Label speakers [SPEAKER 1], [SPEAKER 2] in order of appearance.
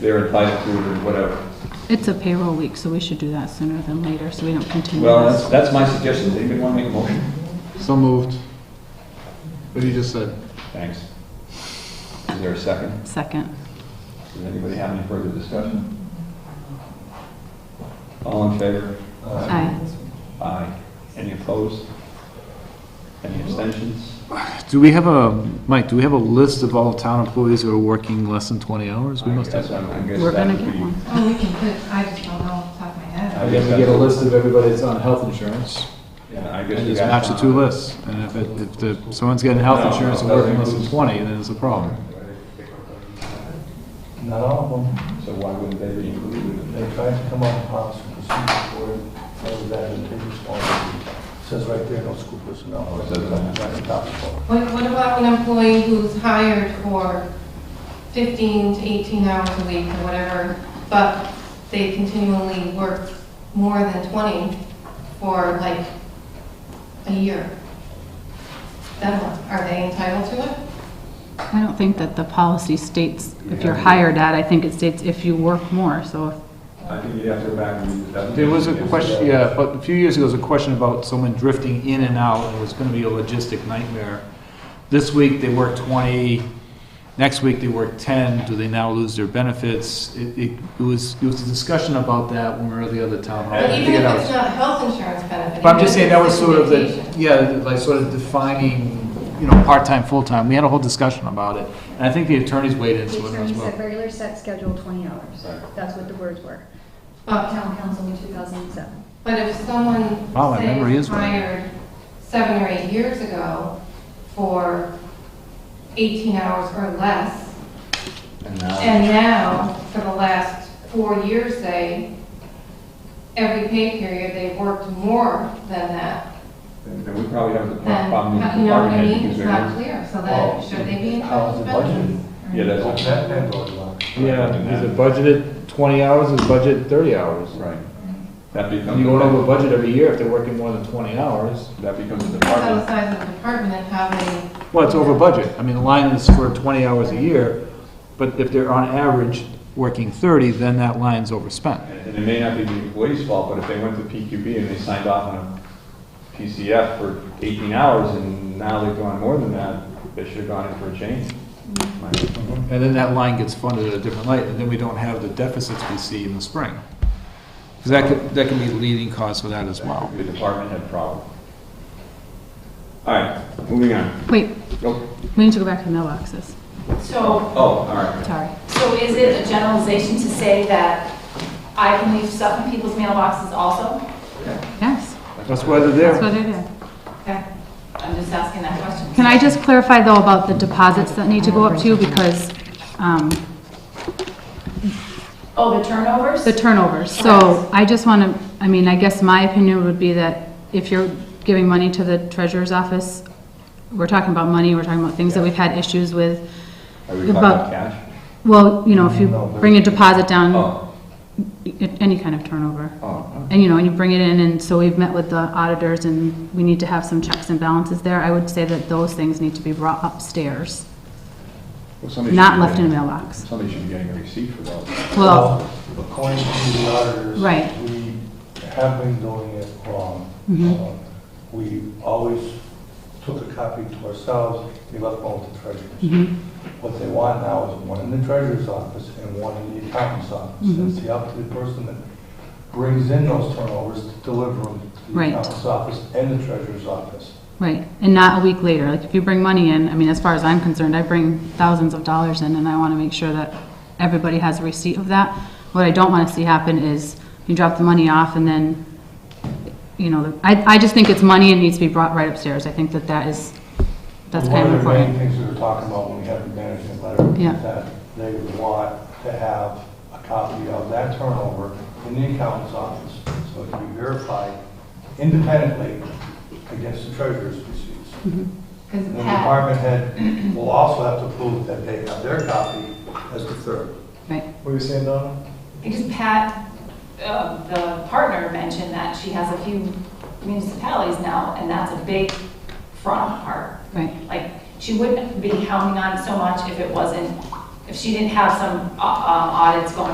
[SPEAKER 1] they're entitled to or whatever.
[SPEAKER 2] It's a payroll week, so we should do that sooner than later, so we don't continue
[SPEAKER 1] Well, that's,
[SPEAKER 2] this.
[SPEAKER 1] that's my suggestion. Does anybody want to make a motion?
[SPEAKER 3] So moved. What you just said.
[SPEAKER 1] Thanks. Is there a second?
[SPEAKER 2] Second.
[SPEAKER 1] Does anybody have any further discussion? All in favor?
[SPEAKER 2] Aye.
[SPEAKER 1] Aye. Any opposed? Any abstentions?
[SPEAKER 4] Do we have a, Mike, do we have a list of all town employees who are working less than 20 hours? We must have.
[SPEAKER 2] We're gonna get one.
[SPEAKER 5] Oh, we can put, I just don't know off the top of my head.
[SPEAKER 1] We get a list.
[SPEAKER 4] of everybody that's on health insurance.
[SPEAKER 1] Yeah, I guess
[SPEAKER 4] And
[SPEAKER 1] we
[SPEAKER 4] just
[SPEAKER 1] got-
[SPEAKER 4] match the two lists. And if, it- if the- someone's getting health insurance and working less than 20, then it's a problem.
[SPEAKER 6] Not all of them.
[SPEAKER 1] So why wouldn't they be included?
[SPEAKER 6] They tried to come up with policy and procedure for it, and that in previous one. Says right there, no school personnel.
[SPEAKER 1] Oh, it says that.
[SPEAKER 6] Right on top of it.
[SPEAKER 5] What, what about an employee who's hired for 15 to 18 hours a week or whatever, but they continually work more than 20 for like a year? Then what, are they entitled to it?
[SPEAKER 2] I don't think that the policy states if you're hired at, I think it states if you work more, so
[SPEAKER 1] I think you'd have to go back and read the definition.
[SPEAKER 4] There was a question, yeah, but a few years ago, there was a question about someone drifting in and out, and it was gonna be a logistic nightmare. This week, they work twenty, next week, they work ten, do they now lose their benefits? It, it it was, it was a discussion about that when we were at the other town hall.
[SPEAKER 5] But
[SPEAKER 4] I
[SPEAKER 5] even
[SPEAKER 4] forget
[SPEAKER 5] if
[SPEAKER 4] how
[SPEAKER 5] it's
[SPEAKER 4] it-
[SPEAKER 5] not health insurance benefit.
[SPEAKER 4] But I'm just
[SPEAKER 5] even
[SPEAKER 4] saying, that
[SPEAKER 5] if
[SPEAKER 4] was
[SPEAKER 5] it's
[SPEAKER 4] sort of the,
[SPEAKER 5] vacation.
[SPEAKER 4] yeah, like sort of defining, you know, part-time, full-time, we had a whole discussion about it. And I think the attorneys weighed in,
[SPEAKER 7] The
[SPEAKER 4] so it as
[SPEAKER 7] attorney
[SPEAKER 4] well.
[SPEAKER 7] said regular set schedule 20 hours. That's what the words were.
[SPEAKER 5] But
[SPEAKER 7] Town council in 2007.
[SPEAKER 5] But if someone,
[SPEAKER 4] Wow, my
[SPEAKER 5] say,
[SPEAKER 4] memory
[SPEAKER 5] was
[SPEAKER 4] is right.
[SPEAKER 5] hired seven or eight years ago for 18 hours or less,
[SPEAKER 1] And now-
[SPEAKER 5] and now, for the last four years, say, every pay period, they've worked more than that,
[SPEAKER 1] And and we probably have the pro-
[SPEAKER 5] then,
[SPEAKER 1] problem with
[SPEAKER 5] you know what I
[SPEAKER 1] department
[SPEAKER 5] mean?
[SPEAKER 1] heads because
[SPEAKER 5] It's
[SPEAKER 1] they're-
[SPEAKER 5] not clear, so
[SPEAKER 6] Well,
[SPEAKER 5] then, should they be
[SPEAKER 6] How
[SPEAKER 5] entitled to
[SPEAKER 6] is the
[SPEAKER 5] benefits?
[SPEAKER 6] budget?
[SPEAKER 1] Yeah,
[SPEAKER 6] What's
[SPEAKER 1] that's,
[SPEAKER 6] that been going on?
[SPEAKER 4] Yeah, is it budgeted twenty hours, is budgeted thirty hours?
[SPEAKER 1] right. That becomes.
[SPEAKER 4] You go over budget every year if they're working more than twenty hours.
[SPEAKER 1] That becomes a
[SPEAKER 5] Depends on the
[SPEAKER 1] department.
[SPEAKER 5] size of the department and how many,
[SPEAKER 4] Well, it's over budget, I mean, the line is for twenty hours a year, but if they're on average working thirty, then that line's overspent.
[SPEAKER 1] And and it may not be the employee's fault, but if they went to PQB and they signed off on a PCF for 18 hours and now they've gone more than that, they should have gone in for a change. My-
[SPEAKER 6] Mm-hmm.
[SPEAKER 4] And then that line gets funded at a different light, and then we don't have the deficits we see in the spring. Because that could, that can be the leading cause for that as well.
[SPEAKER 1] The department had problem. All right, moving on.
[SPEAKER 2] wait,
[SPEAKER 1] Go.
[SPEAKER 2] we need to go back to the mailboxes.
[SPEAKER 8] So,
[SPEAKER 1] Oh, all right.
[SPEAKER 2] Sorry.
[SPEAKER 8] so is it a generalization to say that I can leave stuff in people's mailboxes also?
[SPEAKER 2] Yes,
[SPEAKER 4] That's why they're
[SPEAKER 2] that's
[SPEAKER 4] there.
[SPEAKER 2] what it is.
[SPEAKER 8] Okay, I'm just asking that question.
[SPEAKER 2] Can I just clarify though about the deposits that need to go up too because um,
[SPEAKER 8] Oh, the turnovers?
[SPEAKER 2] the turnovers. So I just want to, I mean, I guess my opinion would be that if you're giving money to the treasurer's office, we're talking about money, we're talking about things that we've had issues with.
[SPEAKER 1] Are we talking
[SPEAKER 2] About-
[SPEAKER 1] about cash?
[SPEAKER 2] Well, you know, if you
[SPEAKER 6] No, but-
[SPEAKER 2] bring a deposit down,
[SPEAKER 1] Oh,
[SPEAKER 2] i- any kind of turnover.
[SPEAKER 1] oh,
[SPEAKER 2] And, you know, and you bring it in, and so we've met with the auditors, and we need to have some checks and balances there. I would say that those things need to be brought upstairs,
[SPEAKER 1] well, somebody should
[SPEAKER 2] not
[SPEAKER 1] be
[SPEAKER 2] left in a
[SPEAKER 1] getting-
[SPEAKER 2] mailbox.
[SPEAKER 1] Somebody should be getting a receipt for those.
[SPEAKER 2] Well,
[SPEAKER 6] According to the auditors.
[SPEAKER 1] Oh.
[SPEAKER 2] Right.
[SPEAKER 6] We have been doing it wrong.
[SPEAKER 2] Mhm.
[SPEAKER 6] Um, We always took a copy to ourselves, we left one with the treasurers.
[SPEAKER 2] mhm,
[SPEAKER 6] What they want now is one in the treasurer's office and one in the accountant's office.
[SPEAKER 2] Mm-hmm.
[SPEAKER 6] It's the up to the person that brings in those turnovers to deliver them to the
[SPEAKER 2] Right.
[SPEAKER 6] accountant's office and the treasurer's office.
[SPEAKER 2] right, and not a week later. Like, if you bring money in, I mean, as far as I'm concerned, I bring thousands of dollars in, and I want to make sure that everybody has a receipt of that. What I don't want to see happen is you drop the money off, and then, you know, the- I, I just think it's money, it needs to be brought right upstairs. I think that that is, that's kind of
[SPEAKER 6] One of the
[SPEAKER 2] important.
[SPEAKER 6] main things we were talking about when we had the management letter. is
[SPEAKER 2] Yeah.
[SPEAKER 6] That they would want to have a copy of that turnover in the accountant's office, so it can be verified independently against the treasurer's receipts.
[SPEAKER 5] because
[SPEAKER 6] And the
[SPEAKER 5] Pat,
[SPEAKER 6] department head will also have to prove that they have their copy as the third.
[SPEAKER 2] Right.
[SPEAKER 6] What are you saying, Donna?
[SPEAKER 8] Because Pat, uh, the partner mentioned that she has a few municipalities now, and that's a big front on her.
[SPEAKER 2] Right.
[SPEAKER 8] Like, she wouldn't be counting on so much if it wasn't, if she didn't have some uh, uh, audits going